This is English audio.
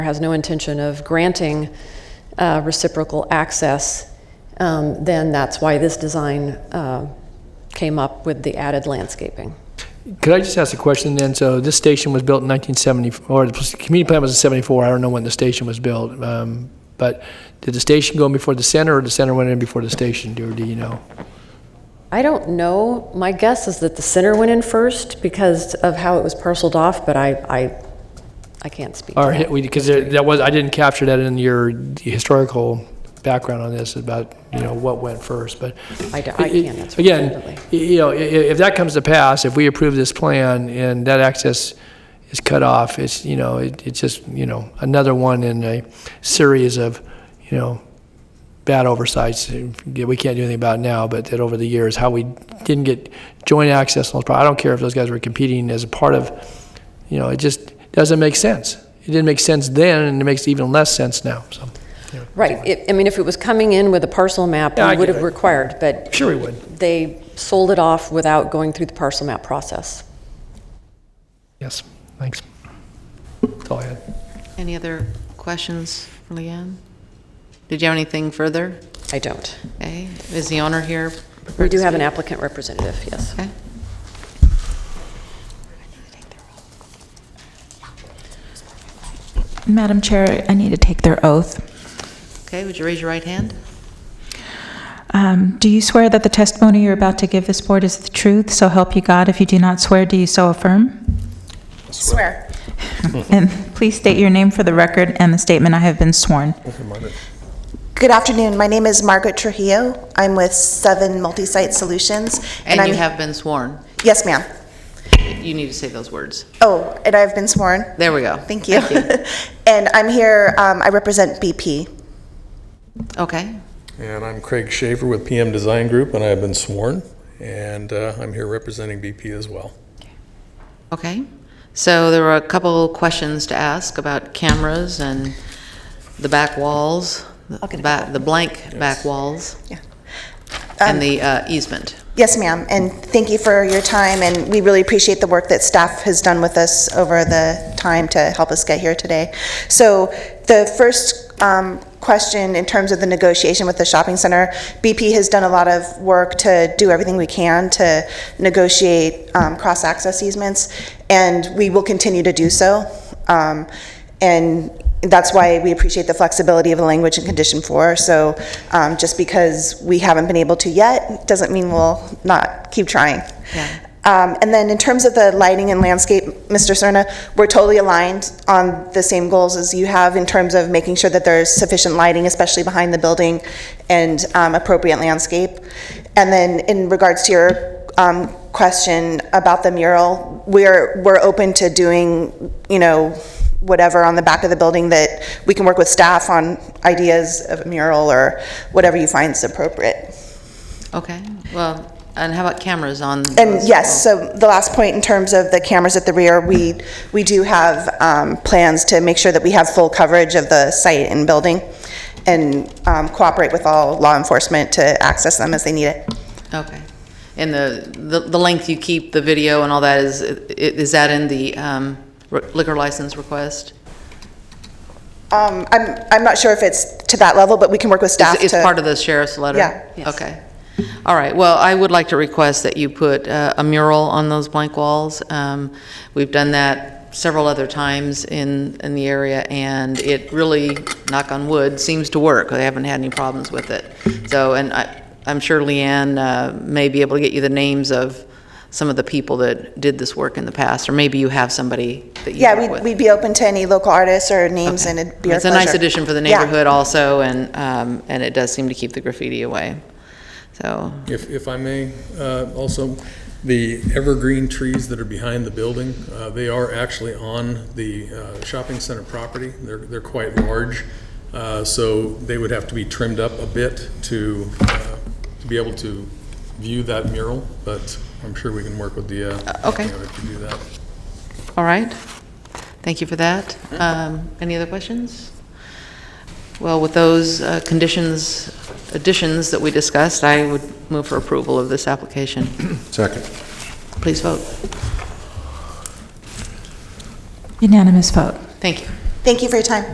has no intention of granting uh, reciprocal access, um, then that's why this design uh, came up with the added landscaping. Could I just ask a question then? So this station was built in 1970, or the community plan was in 74. I don't know when the station was built. Um, But did the station go in before the center, or the center went in before the station, or do you know? I don't know. My guess is that the center went in first because of how it was parceled off, but I, I, I can't speak. to Or, that. because that was, I didn't capture that in your historical background on this about, you know, what went first, but. I do- I can't answer Again, definitively. y- you know, i- i- if that comes to pass, if we approve this plan and that access is cut off, it's, you know, it- it's just, you know, another one in a series of, you know, bad oversights that we can't do anything about now, but that over the years, how we didn't get joint access. on those pro- I don't care if those guys were competing as a part of, you know, it just doesn't make sense. It didn't make sense then, and it makes even less sense now, so. Right. It- I mean, if it was coming in with a parcel map, Yeah, I we would get have it. required, but Sure we would. they sold it off without going through the parcel map process. Yes, thanks. That's all I had. Any other questions for Leanne? Did you have anything further? I don't. Okay, is the owner here? We do have an applicant representative, yes. Okay. Madam Chair, I need to take their oath. Okay, would you raise your right hand? Um, Do you swear that the testimony you're about to give this board is the truth, so help you God? If you do not swear, do you so affirm? Swear. And please state your name for the record and the statement I have been sworn. Good afternoon. My name is Margaret Trujillo. I'm with Seven Multisite Solutions. And I'm- you have been sworn. Yes, ma'am. You need to say those words. Oh, and I've been sworn. There we go. Thank you. And I'm here, um, I represent BP. Okay, And I'm Craig Shaver with PM Design Group, and I have been sworn, and uh, I'm here representing BP as well. okay. So there were a couple questions to ask about cameras and the back walls, the ba- the blank back walls, Um, and the uh, easement. Yes, ma'am, and thank you for your time, and we really appreciate the work that staff has done with us over the time to help us get here today. So the first um, question, in terms of the negotiation with the shopping center, BP has done a lot of work to do everything we can to negotiate um, cross-access easements, and we will continue to do so. Um, and that's why we appreciate the flexibility of the language in condition four. So um, just because we haven't been able to yet, doesn't mean we'll not keep trying. Yeah. Um, And then in terms of the lighting and landscape, Mr. Serna, we're totally aligned on the same goals as you have in terms of making sure that there's sufficient lighting, especially behind the building, and um, appropriate landscape. And then in regards to your um, question about the mural, we're, we're open to doing, you know, whatever on the back of the building that we can work with staff on ideas of a mural or whatever you find is appropriate. Okay, well, and how about cameras on? And yes, so the last point in terms of the cameras at the rear, we, we do have um, plans to make sure that we have full coverage of the site and building and um, cooperate with all law enforcement to access them as they need it. Okay. And the, the the length you keep the video and all that is, i- is that in the um, r- liquor license request? Um, I'm, I'm not sure if it's to that level, but we can work with staff to. It's part of the sheriff's letter? Yeah. Okay. All right, well, I would like to request that you put uh, a mural on those blank walls. Um, We've done that several other times in, in the area, and it really, knock on wood, seems to work. They haven't had any problems with it. So, and I, I'm sure Leanne uh, may be able to get you the names of some of the people that did this work in the past, or maybe you have somebody that you Yeah, work we'd, with. we'd be open to any local artists or names, and it'd be our It's a pleasure. nice addition for the Yeah. neighborhood also, and, um, and it does seem to keep the graffiti away. So, If, if I may, uh, also, the evergreen trees that are behind the building, uh, they are actually on the uh, shopping center property. They're, they're quite large, uh, so they would have to be trimmed up a bit to, uh, to be able to view that mural, but I'm sure we can work with the, uh, okay. you know, to do that. all right. Thank you for that. Um, Any other questions? Well, with those uh, conditions, additions that we discussed, I would move for approval of this application. Second. Please vote. Unanimous vote. Thank you. Thank you for your time.